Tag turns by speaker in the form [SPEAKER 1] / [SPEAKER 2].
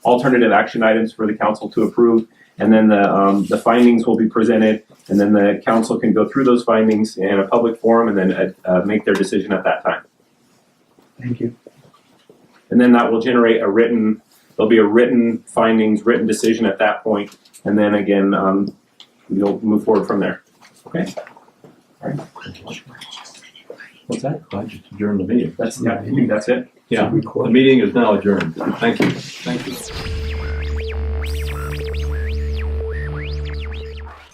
[SPEAKER 1] alternative action items for the council to approve. And then the, um, the findings will be presented, and then the council can go through those findings in a public forum and then, uh, uh, make their decision at that time.
[SPEAKER 2] Thank you.
[SPEAKER 1] And then that will generate a written, there'll be a written findings, written decision at that point, and then again, um, you'll move forward from there.
[SPEAKER 3] What's that?
[SPEAKER 4] I just adjourned the meeting.
[SPEAKER 1] That's, yeah, I think that's it.
[SPEAKER 3] Yeah, the
[SPEAKER 2] Record.
[SPEAKER 3] meeting is now adjourned. Thank you. Thank you.